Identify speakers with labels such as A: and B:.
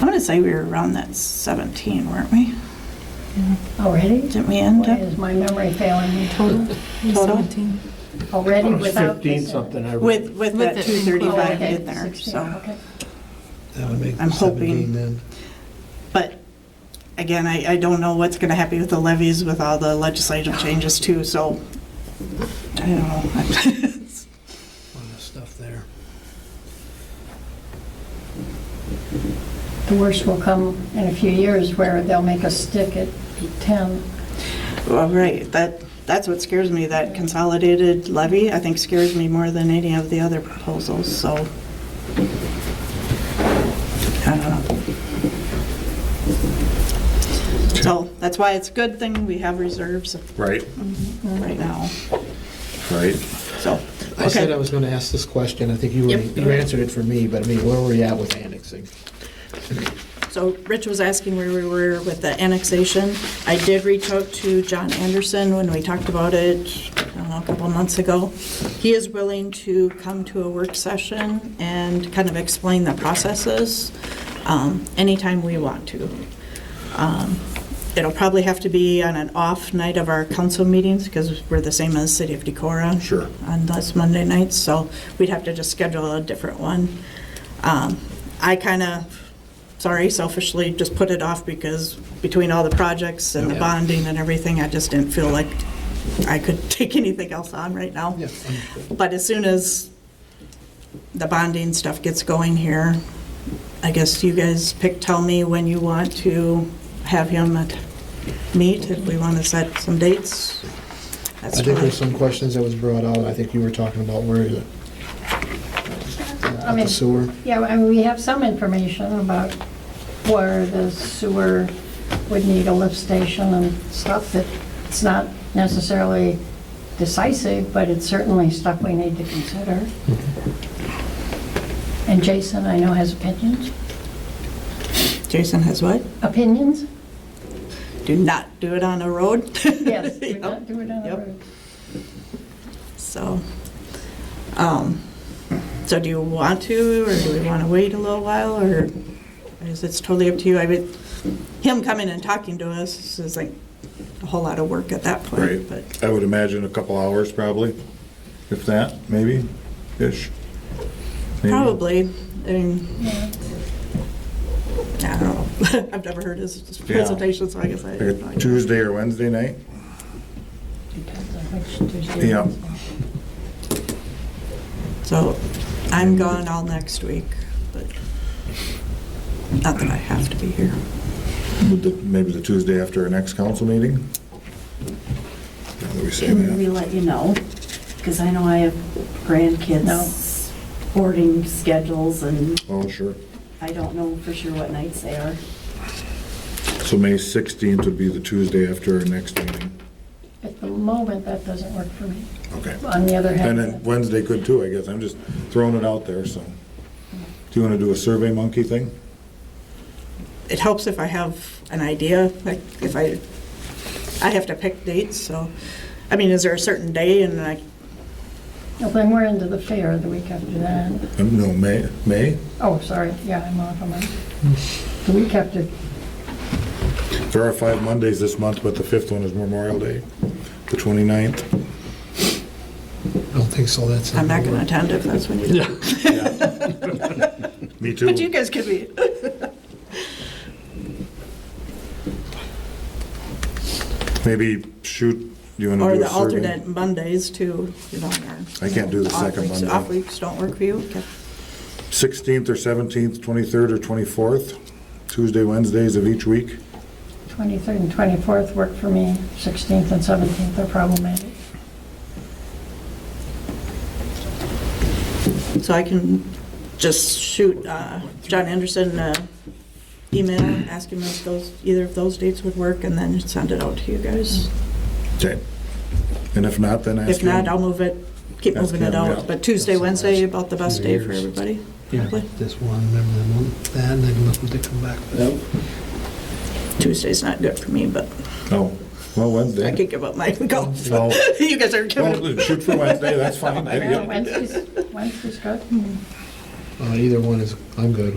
A: I'm gonna say we were around that 17, weren't we?
B: Already?
A: Didn't we end
B: Boy,
A: up
B: is my memory failing me total?
A: total?
B: Already
C: It was
B: without
C: fifteen
B: this? Oh,
C: something. I
A: With, with
D: With
A: that
D: it
A: 235
B: okay,
A: in there,
B: 16,
A: so.
B: okay.
C: That would make
A: I'm
C: it
A: hoping-
C: seventeen then.
A: But again, I, I don't know what's gonna happen with the levies with all the legislative changes too, so I don't know.
C: A lot of stuff there.
B: The worst will come in a few years where they'll make us stick at 10.
A: Well, right, that, that's what scares me, that consolidated levy, I think scares me more than any of the other proposals, so. I don't know. So that's why it's a good thing we have reserves
E: Right,
A: right now,
E: right.
A: so.
C: I said I
A: Okay,
C: was gonna ask this question, I think you,
A: Yep.
C: you answered it for me, but I mean, where were we at with annexing?
A: so Rich was asking where we were with the annexation. I did reach out to John Anderson when we talked about it, I don't know, a couple months ago. He is willing to come to a work session and kind of explain the processes um, anytime we want to. Um, It'll probably have to be on an off night of our council meetings because we're the same as City of Decorah.
E: Sure.
A: On those Monday nights, so we'd have to just schedule a different one. Um, I kind of, sorry, selfishly just put it off because between all the projects and the
C: Yeah.
A: bonding and everything, I just didn't feel like I could take anything else on right now.
C: Yeah,
A: But as soon as the bonding stuff gets going here, I guess you guys pick, tell me when you want to have him at- meet, if we want to set some dates. That's
C: I
A: fine.
C: think there's some questions that was brought out, I think you were talking about where the,
B: I
C: uh,
B: mean-
C: the sewer.
B: Yeah, I mean, we have some information about where the sewer would need a lift station and stuff that it's not necessarily decisive, but it's certainly stuff we need to consider.
C: Mm-hmm.
B: And Jason, I know, has opinions.
A: Jason has what?
B: Opinions?
A: Do not do it on a road?
B: Yes, do
A: Yep.
B: not do it on the
A: Yep.
B: road.
A: So, um, so do you want to, or do we want to wait a little while, or is it's totally up to you? I would, him coming and talking to us is like a whole lot of work at that point,
E: Right.
A: but
E: I would imagine a couple hours probably, if that, maybe, ish. Maybe.
A: probably, I mean, I don't know. I've never heard his his
E: Yeah.
A: presentation, so I guess I.
E: Like a Tuesday or Wednesday night?
B: Depends on which Tuesday.
E: Yeah.
A: So I'm gone all next week, but not that I have to be here.
E: Would the- Maybe the Tuesday after our next council meeting? Now that we say
F: Can
E: that.
F: we let you know? Because I know I have grandkids, boarding schedules, and
E: Oh, sure.
F: I don't know for sure what nights they are.
E: So May 16th would be the Tuesday after our next meeting.
B: At the moment, that doesn't work for me.
E: Okay.
B: On the other
E: And then
B: hand,
E: Wednesday could too, I guess. I'm just throwing it out there, so. Do you want to do a Survey Monkey thing?
A: it helps if I have an idea, like if I, I have to pick dates, so, I mean, is there a certain day and I,
B: well, then we're into the fair the week after that.
E: Um, No, May, May?
B: Oh, sorry, yeah, I'm off on that. The week after,
E: There are five Mondays this month, but the fifth one is Memorial Day, the 29th.
C: I don't think so, that's.
A: I'm not gonna attend if that's when you do.
E: Me too.
A: But you guys could be.
E: Maybe shoot, you want to
A: Or
E: do a
A: the
E: survey?
A: alternate Mondays too, you know. or-
E: I can't do the
A: Off
E: second
A: weeks- Off
E: Monday.
A: weeks don't work for you? Okay.
E: 16th or 17th, 23rd or 24th, Tuesday, Wednesdays of each week.
B: 23rd and 24th work for me, 16th and 17th are problematic.
A: So I can just shoot uh, John Anderson an email, ask him if those, either of those dates would work and then send it out to you guys.
E: Okay. And if not, then ask
A: If not, I'll
E: him.
A: move it, keep
E: Ask
A: moving it
E: him,
A: out.
E: yeah.
A: But Tuesday,
C: That's the
A: Wednesday,
C: last
A: about the best
C: few
A: day for
C: years.
A: everybody.
C: Yeah,
A: probably.
C: this one, remember that one, that, and then look what they come back with.
A: Tuesday's not good for me, but
E: Oh, well,
A: I
E: Wednesday.
A: could give up my golf.
E: Well,
A: You guys are giving up.
E: well, shoot for Wednesday, that's fine.
B: Yeah,
E: Yep.
B: Wednesday's, Wednesday's good.
C: Uh, Either one is, I'm good with